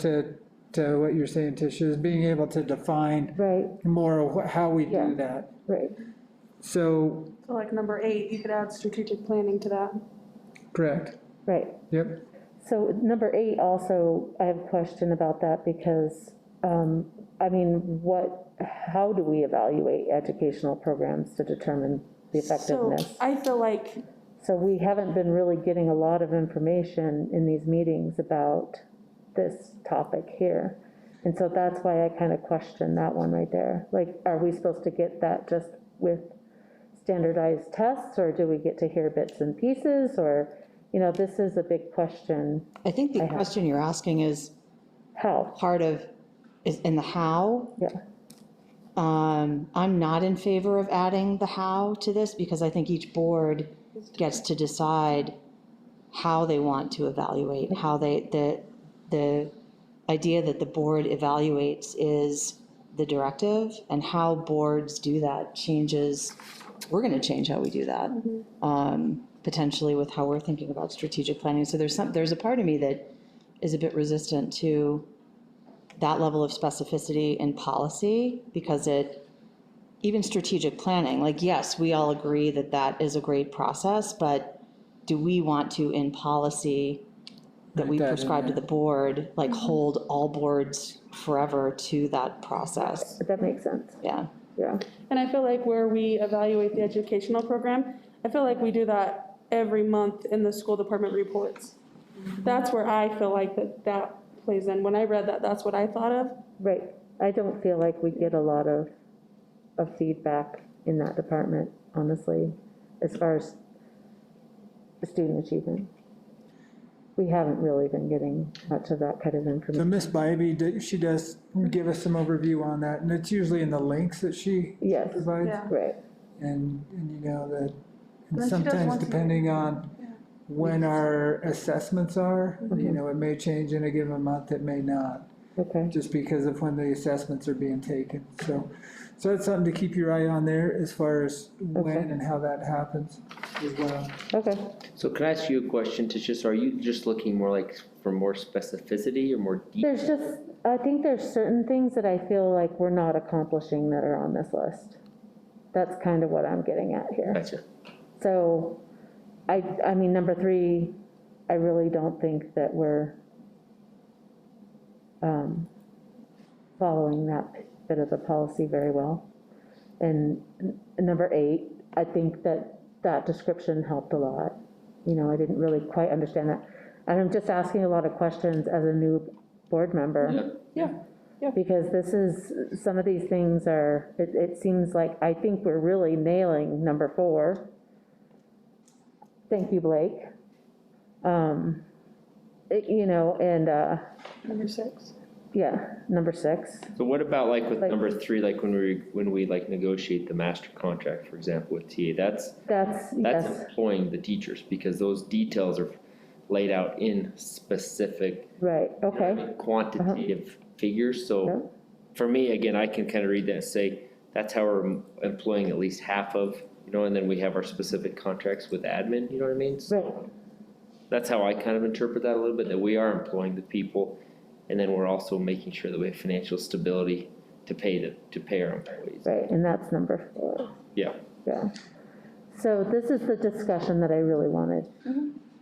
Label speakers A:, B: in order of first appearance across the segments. A: to, to what you're saying, Tisha, is being able to define
B: Right,
A: more of wh- how we do
B: Yeah.
A: that.
B: right,
A: So,
C: So like number eight, you could add strategic planning to that.
A: correct,
B: right.
A: yep,
B: So number eight also, I have a question about that because, um, I mean, what, how do we evaluate educational programs to determine the
C: So
B: effectiveness?
C: I feel like,
B: So we haven't been really getting a lot of information in these meetings about this topic here. And so that's why I kind of question that one right there. Like, are we supposed to get that just with standardized tests? Or do we get to hear bits and pieces? Or, you know, this is a big question.
D: I think the question you're asking is
B: How?
D: part of, is in the how.
B: Yeah,
D: Um, I'm not in favor of adding the how to this because I think each board gets to decide how they want to evaluate, how they, the, the idea that the board evaluates is the directive and how boards do that changes, we're going to change how we do that. Um, potentially with how we're thinking about strategic planning. So there's some, there's a part of me that is a bit resistant to that level of specificity in policy because it, even strategic planning, like, yes, we all agree that that is a great process, but do we want to in policy that we
A: Write that in
D: prescribe to
A: there.
D: the board, like, hold all boards forever to that process?
B: but that makes sense,
D: Yeah.
B: yeah.
C: and I feel like where we evaluate the educational program, I feel like we do that every month in the school department reports. That's where I feel like that, that plays in. When I read that, that's what I thought of.
B: Right, I don't feel like we get a lot of, of feedback in that department, honestly, as far as student achievement. We haven't really been getting much of that kind of
A: so
B: information.
A: Miss Bybee, d- she does give us some overview on that, and it's usually in the links that she
B: Yes,
A: provides.
C: Yeah.
B: right,
A: And, and you know, that, and
C: then she does
A: sometimes
C: once a year.
A: depending on when our assessments are,
C: Mm-hmm.
A: you know, it may change in a given month, it may not,
B: okay,
A: just because of when the assessments are being taken, so. So that's something to keep your eye on there as far as when
B: Okay.
A: and how that happens as well.
B: okay.
E: So can I ask you a question, Tisha? So are you just looking more like for more specificity or more deep?
B: There's just, I think there's certain things that I feel like we're not accomplishing that are on this list. That's kind of what I'm getting at here.
E: Gotcha.
B: So, I, I mean, number three, I really don't think that we're um, following that bit of the policy very well. And n- number eight, I think that that description helped a lot. You know, I didn't really quite understand that. And I'm just asking a lot of questions as a new board member
E: Yeah.
C: Yeah.
B: because this is, some of these things are, it, it seems like, I think we're really nailing number four. Thank you, Blake. Um, it- You know, and, uh,
C: Number six.
B: yeah, number six,
E: So what about like with
B: Like-
E: number three, like when we, when we like negotiate the master contract, for example, with TA? That's,
B: that's,
E: that's
B: yes,
E: employing the teachers because those details are laid out in specific
B: right,
E: you know what I
B: okay, Uh-huh.
E: mean, quantitative figures.
B: Yeah.
E: So for me, again, I can kind of read that and say, that's how we're employing at least half of, you know, and then we have our specific contracts with admin, you know what I mean? So
B: right,
E: that's how I kind of interpret that a little bit, that we are employing the people, and then we're also making sure that we have financial stability to pay the, to pay our employees.
B: right, and that's number four,
E: Yeah,
B: yeah. So this is the discussion that I really wanted.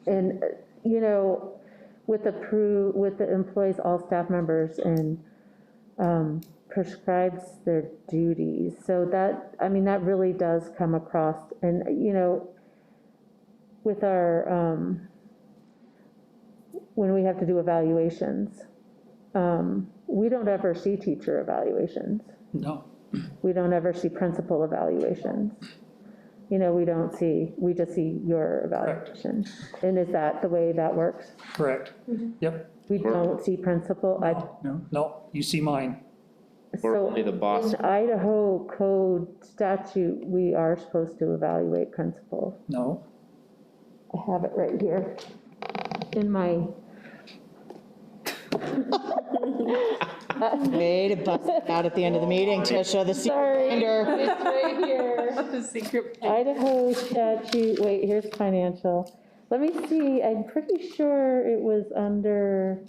B: And, uh, you know, with the pro, with the employees, all staff members, and um, prescribes their duties. So that, I mean, that really does come across, and, uh, you know, with our, um, when we have to do evaluations, um, we don't ever see teacher evaluations. No. We don't ever see principal evaluations. You know, we don't see, we just see your evaluation. And is that the way that works?
F: Correct. Yep.
B: We don't see principal, I,
A: No.
F: No, you see mine.
E: we're
B: so
E: only the boss,
B: in Idaho code statute, we are supposed to evaluate principal.
F: No.
B: I have it right here in my,
D: Way to bust it out at the end of the meeting, Tisha, the
B: Sorry.
D: secret finder.
B: Idaho statute, wait, here's financial. Let me see, I'm pretty sure it was under um,